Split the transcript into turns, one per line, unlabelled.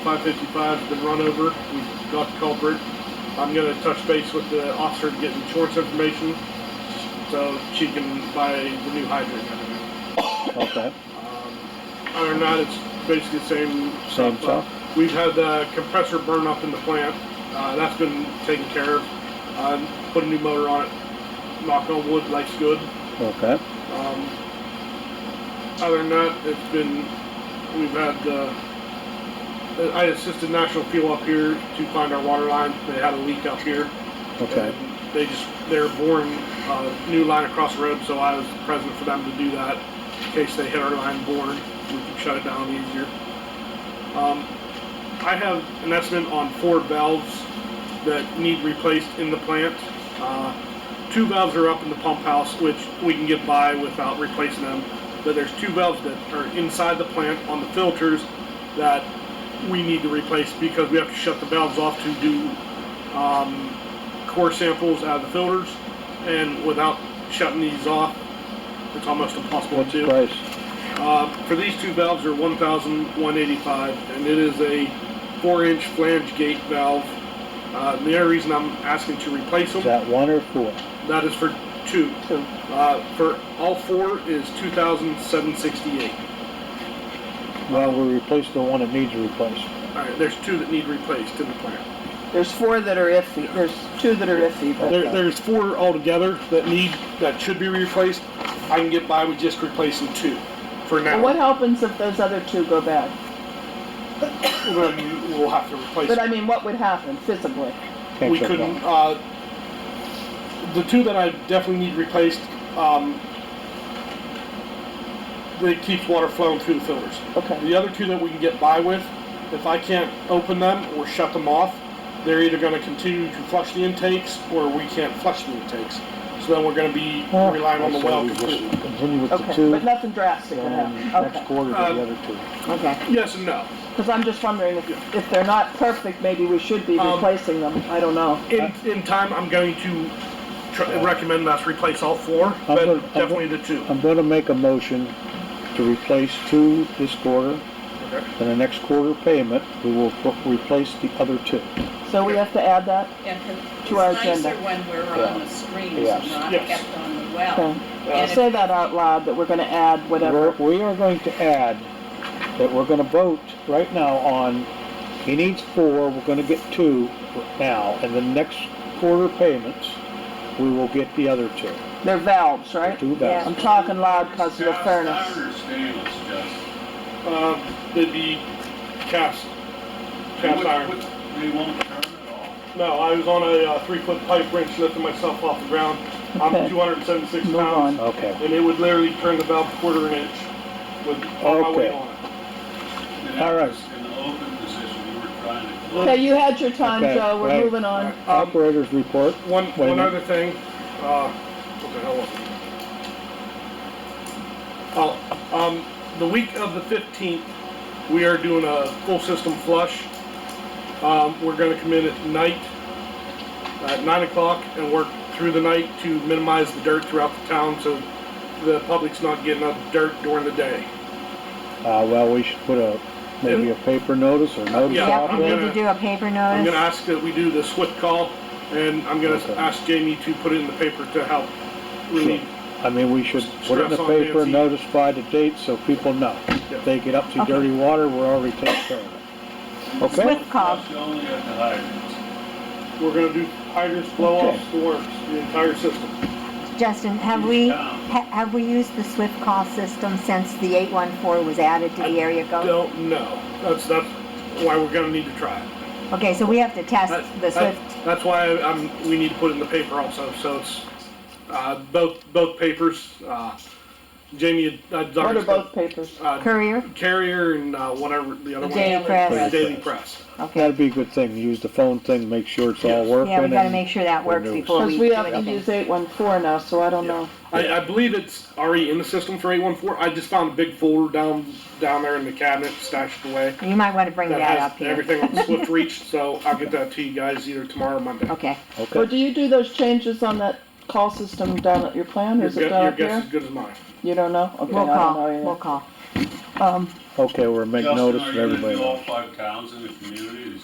555's been run over. We've got the culprit. I'm going to touch base with the officer to get insurance information so she can buy the new hydrant.
Okay,
Um, Other than that, it's basically the same.
Same stuff?
We've had the compressor burn up in the plant. Uh, that's been taken care of. Um, put a new motor on it. Knock on wood, life's good.
okay,
Um, other than that, it's been we've had uh, I assisted National Fuel up here to find our water line. They had a leak up here.
okay,
And They just they're boring a new line across the road, so I was present for them to do that in case they hit our line bored. We can shut it down easier. Um, I have an estimate on four valves that need replaced in the plant. Uh, two valves are up in the pump house, which we can get by without replacing them. But there's two valves that are inside the plant on the filters that we need to replace because we have to shut the valves off to do um, core samples out of the filters. And without shutting these off, it's almost impossible
what's
to.
the price?
Uh, for these two valves are 1,185, and it is a four-inch flange gate valve. Uh, the only reason I'm asking to replace them
Is that one or four?
that is for two. Uh, for all four is 2,768.
Well, we replaced the one that needs replaced.
All right, there's two that need replaced in the plant.
There's four that are iffy, there's two that are iffy, but uh,
There, there's four altogether that need that should be replaced. I can get by with just replacing two for now.
what happens if those other two go bad?
Then we'll have to replace.
But I mean, what would happen physically?
Can't
we
shut it
couldn't.
off.
Uh, the two that I definitely need replaced, um, they keep water flowing through the filters.
Okay,
The other two that we can get by with, if I can't open them or shut them off, they're either going to continue to flush the intakes or we can't flush the intakes. So then we're going to be relying on the
I say
well
we just
completely.
Continue with the
okay,
two,
but nothing drastic would
and
happen,
next
okay,
quarter, the
Uh,
other two.
okay.
Yes and no.
Because I'm just wondering if, if they're not perfect, maybe we should be
Um,
replacing them, I don't know.
In, in time, I'm going to tr- recommend us replace all four, but
gonna- I'm
definitely the two.
I'm gonna make a motion to replace two this quarter,
Okay.
and the next quarter payment, we will pr- replace the other two.
So we have to add that?
Yeah, 'cause
To our
It's
agenda.
nicer when we're
Yeah.
on the screens
Yes.
and not
Yes.
kept on the well.
Okay.
And if-
Say that out loud, that we're gonna add
We're,
whatever,
we are going to add that we're gonna vote right now on, he needs four, we're gonna get two now, and the next quarter payments, we will get the other two.
they're valves, right?
Two valves.
I'm talking loud because of the
I
furnace.
understand it's just.
Um, they'd be cast, cast
Would-
iron.
would- They won't turn at all.
No, I was on a uh, three-foot pipe wrench lifting myself off the ground. I'm
Okay.
276
Move
pounds.
on.
Okay,
and it would literally turn the valve quarter an inch with all my
Okay.
weight on it.
And
All
that
right.
was In the open position, you were trying to close.
Okay, you had your time,
Okay,
Joe, we're
right.
moving on.
Um,
operators report.
one
Wait a
one
minute.
other thing, uh, what the hell was it? Oh, um, the week of the 15th, we are doing a full system flush. Um, we're going to come in at night at 9 o'clock and work through the night to minimize the dirt throughout the town so the public's not getting up dirt during the day.
Uh, well, we should put a, maybe a paper notice or notice
Yeah,
out
Yep, we
there.
need to do a paper
I'm gonna
notice.
ask that we do the swift call, and I'm gonna
Okay.
ask Jamie to put it in the paper to help
Sure.
relieve.
I mean, we should put it in the
Stress on
paper,
Nancy.
notify the date so people know. If they get up to dirty water, we're already taking care of it. Okay?
Swift call.
It's only at the hydrants.
We're gonna do hydrants, blow offs, the works, the entire system.
Justin, have we, ha- have we used the Swift call system since the 814 was added to the area code?
Don't know, that's, that's why we're gonna need to try it.
Okay, so we have to test
That-
the
that-
Swift.
That's why I'm, we need to put it in the paper also, so it's, uh, both, both papers, uh, Jamie, uh,
What are
Dr.
both papers?
Uh,
Courier?
Carrier and, uh, whatever the other
The
one.
Daily Press.
The Daily Press.
Okay.
That'd be a good thing, use the phone thing, make sure it's all
Yes.
working.
Yeah, we gotta
and-
make sure that
we're
works
new.
before we
Because we
do
have to use
anything.
814 now, so I don't know.
I, I believe it's already in the system for 814. I just found a big folder down down there in the cabinet stashed away
You might wanna bring
that
that
has
up here.
everything on Swift Reach, so I'll get that to you guys either tomorrow or Monday.
Okay.
Well,
Okay,
do you do those changes on that call system down at your plant, or
Your,
is
gu-
it down
your
up
guess
here?
is good as mine.
You don't know? Okay, I
We'll
don't know
call, we'll um,
either.
call.
Okay, we're making notice of
Justin, are you gonna
everybody.
do all five towns in the community?